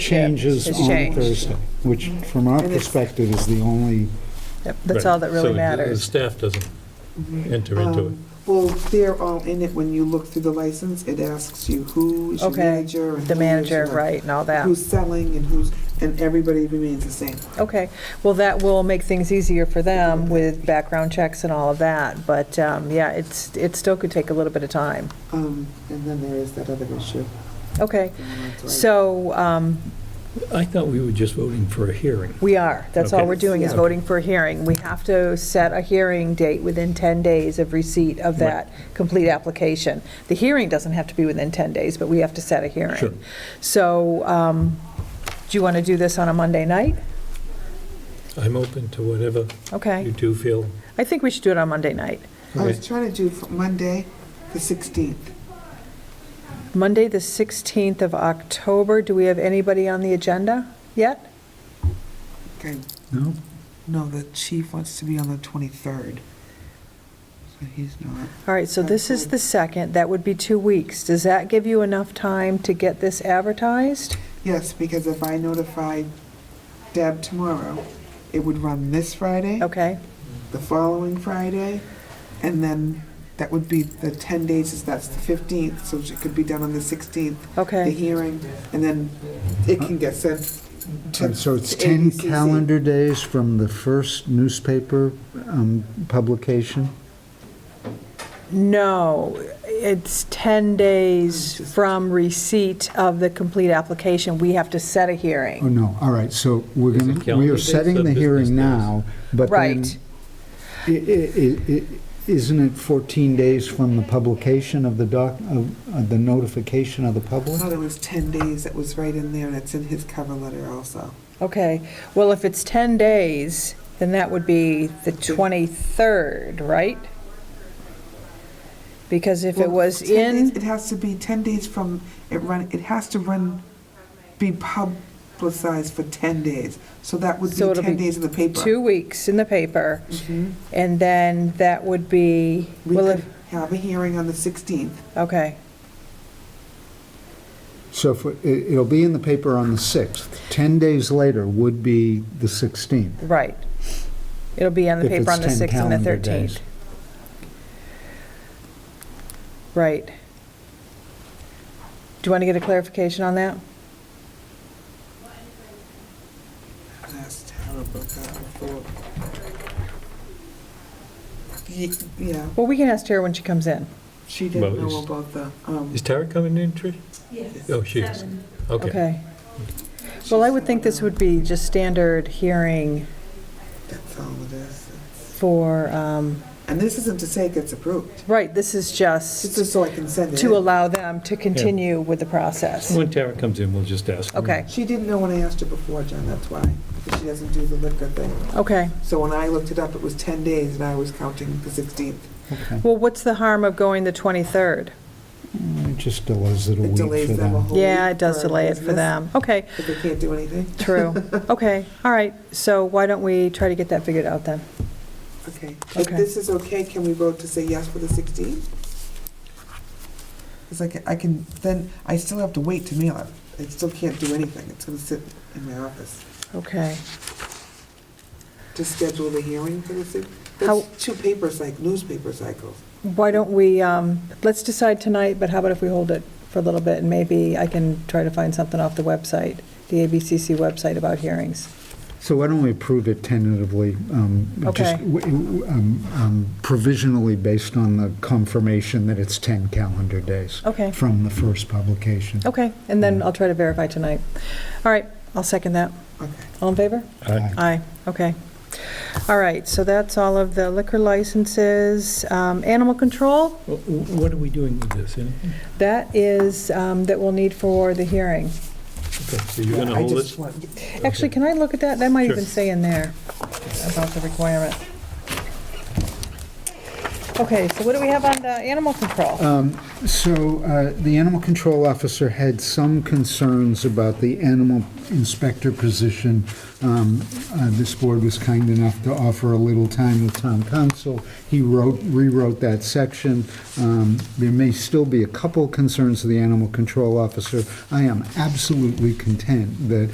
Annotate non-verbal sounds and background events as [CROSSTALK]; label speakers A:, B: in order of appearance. A: changes
B: It's
A: on
B: changed.
A: Thursday, which from our
B: And it's-
A: perspective is the only,
B: Yep, That's all that really
C: The
B: matters.
C: staff doesn't enter into it.
D: Um, Well, they're all in it, when you look through the license, it asks you who is your
B: Okay,
D: manager. and
B: The
D: who is
B: manager,
D: your-
B: right, and all that.
D: Who's selling and who's, and everybody remains the same.
B: Okay, well, that will make things easier for them with background checks and all of that, but, um, yeah, it's, it still could take a little bit of time.
D: Um, And then there is that other issue.
B: Okay,
D: That's right.
B: so um,
C: I thought we were just voting for a hearing.
B: we are, that's all
C: Okay.
B: we're doing is
D: Yeah.
B: voting for a hearing. We have to set a hearing date within 10 days of receipt of that complete application. The hearing doesn't have to be within 10 days, but we have to set a hearing.
C: Sure.
B: So, um, do you want to do this on a Monday night?
C: I'm open to whatever you
B: Okay,
C: do feel.
B: I think we should do it on Monday night.
D: I was trying to do f- Monday, the 16th.
B: Monday, the 16th of October, do we have anybody on the agenda yet?
D: Okay.
A: no?
D: No, the chief wants to be on the 23rd. So he's not.
B: All right, so this is the second, that would be two weeks. Does that give you enough time to get this advertised?
D: Yes, because if I notify Deb tomorrow, it would run this Friday.
B: Okay,
D: the following Friday, and then that would be the 10 days, is that's the 15th, so it could be done on the 16th, the
B: okay,
D: hearing, and then it can get sent to...
A: So it's
D: to
A: 10
D: ABCC.
A: calendar days from the first newspaper um, publication?
B: no, it's 10 days from receipt of the complete application, we have to set a
D: Mm.
A: Oh,
B: hearing.
A: no, all right, so we're
C: Is it
A: going, to we
C: calendar
A: are
C: days
A: setting
C: or
A: the hearing
C: business
A: now, but then...
B: Right.
A: i- i- i- Isn't it 14 days from the publication of the doc, of of the notification of the
D: I
A: public?
D: thought it was 10 days, that was right in there, and it's in his cover letter also.
B: Okay, well, if it's 10 days, then that would be the 23rd, right? Because if it
D: Well,
B: was
D: 10
B: in...
D: days- It has to be 10 days from, it run, it has to run, be publicized for 10 days, so that would be
B: So it'll
D: 10
B: be
D: days in the paper. Mm-hmm.
B: two weeks in the paper, and then that would be,
D: We
B: well,
D: could
B: if,
D: have a hearing on the 16th,
B: okay,
A: So if it- it'll be in the paper on the 6th. 10 days later would be the 16th.
B: right. It'll be on the
A: If
B: paper on the
A: it's 10
B: 6th and the
A: calendar days.
B: 13th. Right. Do you want to get a clarification on that?
D: That's terrible, that report. Ye- Yeah,
B: Well, we can ask Tara when she comes in.
D: she
C: Well,
D: didn't know
C: it's-
D: about the, um,
C: Is Tara coming in, Trish?
E: Yes.
C: Oh, she is.
E: seven.
C: Okay.
B: Okay. Well, I would think this would be just standard hearing
D: that's all it is.
B: for, um,
D: And this isn't to say it gets approved,
B: right, this is
D: it's
B: just
D: just so I can send it
B: to
D: in.
B: allow them to continue with the process.
C: When Tara comes in, we'll just ask. her.
B: Okay,
D: She didn't know when I asked her before, John, that's why, because she doesn't do the liquor thing.
B: okay.
D: So when I looked it up, it was 10 days, and I was counting the 16th.
A: Okay.
B: Well, what's the harm of going the 23rd?
A: It just delays it a
D: It
A: week for
D: delays them a
A: them.
D: whole week.
B: Yeah, it does
D: for
B: delay it for
D: business,
B: them. Okay,
D: If they can't do anything.
B: true.
D: [LAUGHS]
B: Okay, all right. So why don't we try to get that figured out then?
D: Okay. If
B: Okay.
D: this is okay, can we vote to say yes for the 16th? Because I can, I can, then, I still have to wait to mail it. I still can't do anything. It's gonna sit in my office.
B: Okay.
D: To schedule the hearing for the 16th?
B: How-
D: That's two paper cyc, newspaper cycles.
B: Why don't we, um, let's decide tonight, but how about if we hold it for a little bit? And maybe I can try to find something off the website, the ABCC website about hearings.
A: So why don't we approve it tentatively? um, just
B: Okay.
A: w- w- um, um, Provisionally based on the confirmation that it's 10 calendar days
B: Okay,
A: from the first publication.
B: okay. And then I'll try to verify tonight. All right, I'll second that.
D: Okay.
B: All in favor?
A: Aye.
B: Aye, okay. All right, so that's all of the liquor licenses. Um, Animal control?
C: Wh- wh- What are we doing with this? anything?
B: That is, um, that we'll need for the hearing.
C: Okay, So you're going to
D: I
C: hold
D: just
C: this?
D: want-
B: Actually, can I look at that? That might
C: Sure.
B: even say in there about the requirement. Okay, so what do we have on the animal control?
A: Um, So uh, the animal control officer had some concerns about the animal inspector position. Um, uh, This board was kind enough to offer a little time with town council. He wrote, rewrote that section. Um, There may still be a couple concerns of the animal control officer. I am absolutely content that